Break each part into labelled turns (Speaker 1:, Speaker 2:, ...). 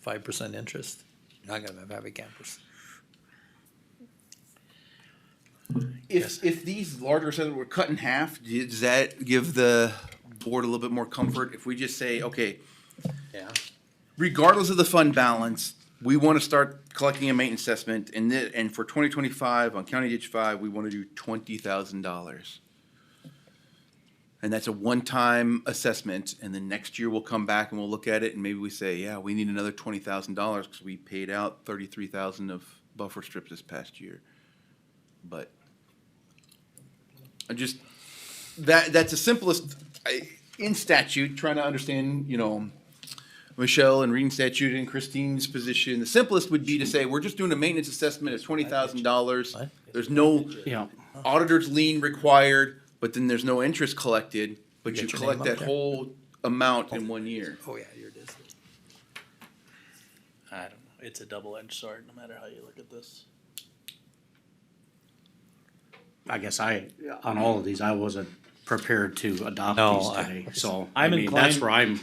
Speaker 1: five percent interest, you're not gonna have a campus.
Speaker 2: If, if these larger sizes were cut in half, does that give the board a little bit more comfort? If we just say, okay,
Speaker 1: Yeah.
Speaker 2: regardless of the fund balance, we want to start collecting a maintenance assessment and thi- and for twenty twenty-five on County Ditch Five, we want to do twenty thousand dollars. And that's a one-time assessment and then next year we'll come back and we'll look at it and maybe we say, yeah, we need another twenty thousand dollars because we paid out thirty-three thousand of buffer strips this past year. But I just, that, that's the simplest, I, in statute, trying to understand, you know, Michelle and reading statute and Christine's position, the simplest would be to say, we're just doing a maintenance assessment at twenty thousand dollars. There's no
Speaker 3: Yeah,
Speaker 2: auditor's lien required, but then there's no interest collected, but
Speaker 1: You
Speaker 2: you
Speaker 1: get your
Speaker 2: collect
Speaker 1: name up
Speaker 2: that
Speaker 1: there.
Speaker 2: whole amount in one year.
Speaker 1: Oh, yeah, here it is.
Speaker 3: I don't know. It's a double-edged sword, no matter how you look at this. I guess I, on all of these, I wasn't prepared to adopt
Speaker 1: No,
Speaker 3: these
Speaker 1: I-
Speaker 3: today, so, I
Speaker 4: I'm
Speaker 3: mean, that's
Speaker 4: inclined-
Speaker 3: where I'm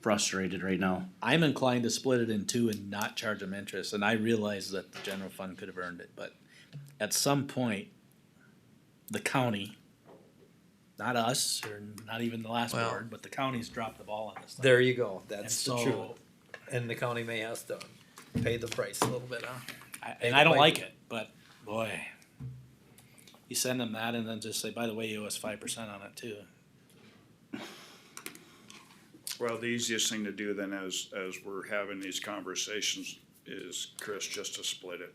Speaker 3: frustrated right now.
Speaker 4: I'm inclined to split it in two and not charge them interest, and I realize that the general fund could have earned it, but at some point, the county, not us, or not even the last
Speaker 1: Well-
Speaker 4: board, but the county's dropped the ball on this thing.
Speaker 1: There you go,
Speaker 4: And
Speaker 1: that's the truth.
Speaker 4: so,
Speaker 1: And the county may have to pay the price a little bit, huh?
Speaker 4: I- and I don't like it, but boy, you send them that and then just say, by the way, you owe us five percent on it too.
Speaker 5: Well, the easiest thing to do then as, as we're having these conversations is, Chris, just to split it.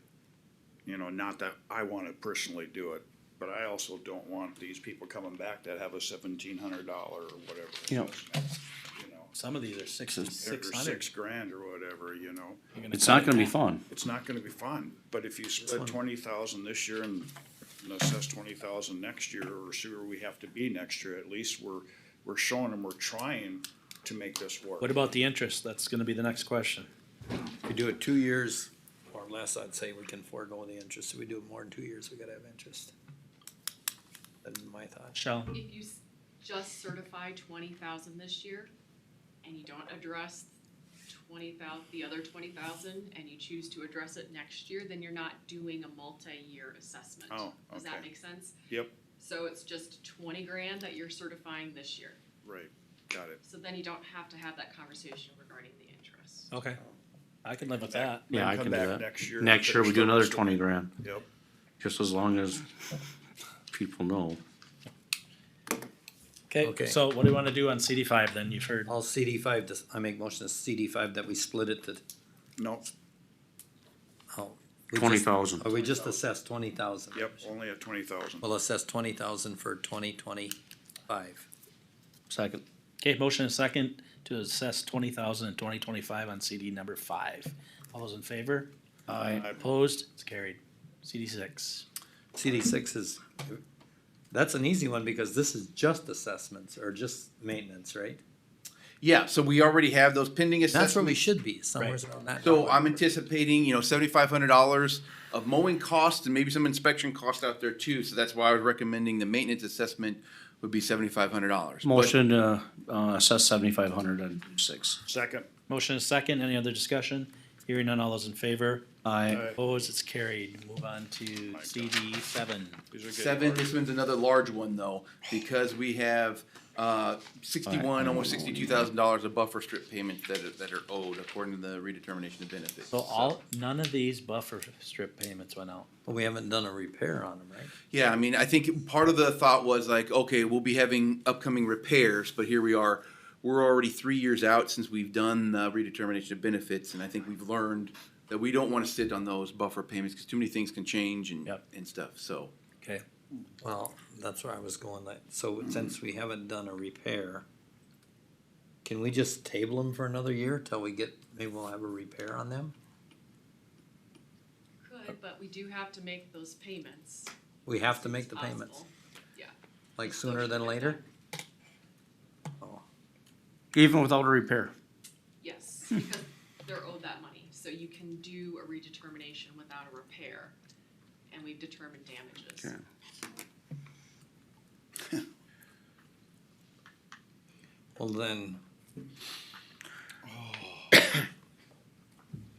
Speaker 5: You know, not that I wanna personally do it, but I also don't want these people coming back that have a seventeen hundred dollar or whatever. it
Speaker 3: Yeah.
Speaker 5: was now, You know,
Speaker 4: Some of these are six,
Speaker 5: or
Speaker 4: six hundred.
Speaker 5: six grand or whatever, you know,
Speaker 3: It's not gonna be fun.
Speaker 5: it's not gonna be fun, but if you split twenty thousand this year and and assess twenty thousand next year, or see where we have to be next year, at least we're, we're showing them we're trying to make this work.
Speaker 4: What about the interest? That's gonna be the next question.
Speaker 1: If you do it two years or less, I'd say we can forego the interest. If we do it more than two years, we gotta have interest. That's my thought.
Speaker 4: Shell,
Speaker 6: If you s- just certify twenty thousand this year, and you don't address twenty thou, the other twenty thousand, and you choose to address it next year, then you're not doing a multi-year assessment.
Speaker 5: Oh,
Speaker 6: Does
Speaker 5: okay.
Speaker 6: that make sense?
Speaker 5: Yep.
Speaker 6: So it's just twenty grand that you're certifying this year,
Speaker 5: Right, got it.
Speaker 6: so then you don't have to have that conversation regarding the interest.
Speaker 4: okay, I can live with that.
Speaker 3: Yeah,
Speaker 5: Then
Speaker 3: I
Speaker 5: come
Speaker 3: can do
Speaker 5: back
Speaker 3: that.
Speaker 5: Next year. and
Speaker 3: Next year, we
Speaker 5: finish
Speaker 3: do
Speaker 5: the
Speaker 3: another
Speaker 5: rest of
Speaker 3: twenty
Speaker 5: it.
Speaker 3: grand,
Speaker 5: Yep,
Speaker 3: just as long as people know.
Speaker 1: Okay.
Speaker 4: Okay, so what do you wanna do on CD five then? You've heard,
Speaker 1: All CD five, does- I make motion to CD five that we split it to,
Speaker 5: no,
Speaker 1: oh. we just-
Speaker 3: 20,000.
Speaker 1: Oh, we just assessed twenty thousand.
Speaker 5: yep, only at twenty thousand.
Speaker 1: We'll assess twenty thousand for twenty twenty-five.
Speaker 4: second, okay, motion and second to assess twenty thousand in twenty twenty-five on CD number five. All those in favor?
Speaker 5: Aye.
Speaker 4: Opposed? It's carried. CD six.
Speaker 1: CD six is, that's an easy one because this is just assessments or just maintenance, right?
Speaker 2: Yeah, so we already have those pending
Speaker 1: That's where we
Speaker 2: assessments.
Speaker 1: should be, somewhere around that.
Speaker 2: So I'm anticipating, you know, seventy-five hundred dollars of mowing costs and maybe some inspection costs out there too. So that's why I was recommending the maintenance assessment would be seventy-five hundred dollars.
Speaker 3: Motion to, uh, assess seventy-five hundred and six.
Speaker 5: Second,
Speaker 4: Motion and second, any other discussion? Hearing none, all those in favor?
Speaker 3: I,
Speaker 5: Aye.
Speaker 4: Opposed? It's carried. Move on to
Speaker 5: God.
Speaker 4: CD seven.
Speaker 5: these are good.
Speaker 2: Seven, this one's another large one though, because we have, uh, sixty-one, almost sixty-two thousand dollars of buffer strip payments that are, that are owed according to the redetermination of benefits.
Speaker 4: So all, none of these buffer strip payments went out.
Speaker 1: But we haven't done a repair on them, right?
Speaker 2: Yeah, I mean, I think part of the thought was like, okay, we'll be having upcoming repairs, but here we are. We're already three years out since we've done the redetermination of benefits, and I think we've learned that we don't wanna sit on those buffer payments, cause too many things can change and,
Speaker 4: Yep.
Speaker 2: and stuff, so.
Speaker 4: Okay.
Speaker 1: Well, that's where I was going, that, so since we haven't done a repair, can we just table them for another year till we get, maybe we'll have a repair on them?
Speaker 6: Could, but we do have to make those payments.
Speaker 1: We have to make the
Speaker 6: as soon as
Speaker 1: payments,
Speaker 6: possible.
Speaker 1: like sooner than later?
Speaker 3: even without a repair.
Speaker 6: Yes, because they're owed that money, so you can do a redetermination without a repair, and we've determined damages.
Speaker 3: Okay.
Speaker 1: Well, then,